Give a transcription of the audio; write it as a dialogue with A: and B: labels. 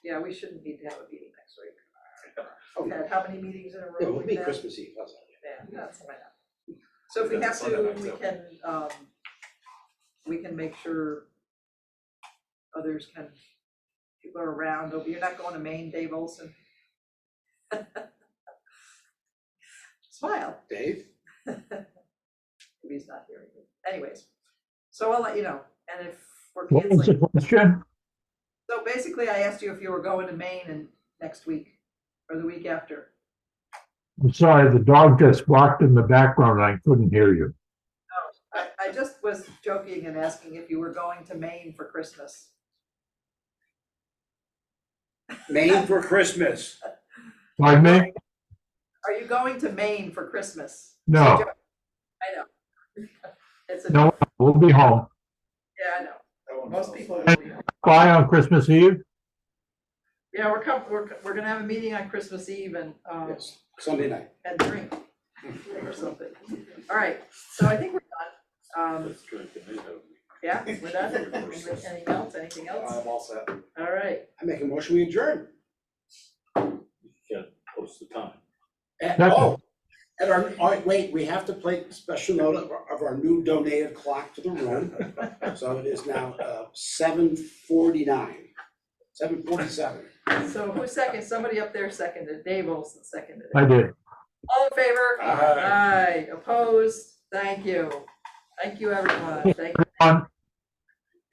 A: we shouldn't need to have a meeting next week.
B: Oh,
A: We've
B: yeah,
A: had how many meetings in a row?
B: Yeah, we'll
A: We've
B: meet
A: had-
B: Christmas Eve, how's that?
A: Yeah, that's my, so if we
C: That's
A: have to,
C: Sunday night,
A: we
C: so.
A: can, um, we can make sure others can, people are around, Oh, you're not going to Maine, Dave Olson? Smile,
B: Dave?
A: if he's not here, anyways, so I'll let you know, and if we're
D: What was the
A: canceling,
D: question?
A: so basically I asked you if you were going to Maine and next week, or the week after.
D: I'm sorry, the dog just barked in the background. I couldn't hear you.
A: I, I just was joking and asking if you were going to Maine for Christmas.
B: Maine for Christmas.
D: Pardon me?
A: Are you going to Maine for Christmas?
D: No,
A: I know. It's a, yeah,
D: no, we'll be home.
A: I know. Most people.
D: Bye on Christmas Eve?
A: Yeah, we're come, we're, we're gonna have a meeting on Christmas Eve and, um,
B: Yes, Sunday night.
A: and drink or something. All right, so I think we're done. Um,
C: Let's try to do that.
A: yeah, we're done. Anything else, anything else?
C: I'm all set.
A: All right,
B: I make a motion, we adjourn.
C: Yeah, post the time.
B: At,
D: Second.
B: oh, at our, all right, wait, we have to play special note of, our- of our new donated clock to the room. So it is now, uh, seven forty-nine, seven forty-seven.
A: so who seconded? Somebody up there seconded. Dave Olson seconded. it.
D: I did.
A: All in favor?
C: Aye.
A: Aye, opposed? Thank you. Thank you, everyone. Thank you.
D: On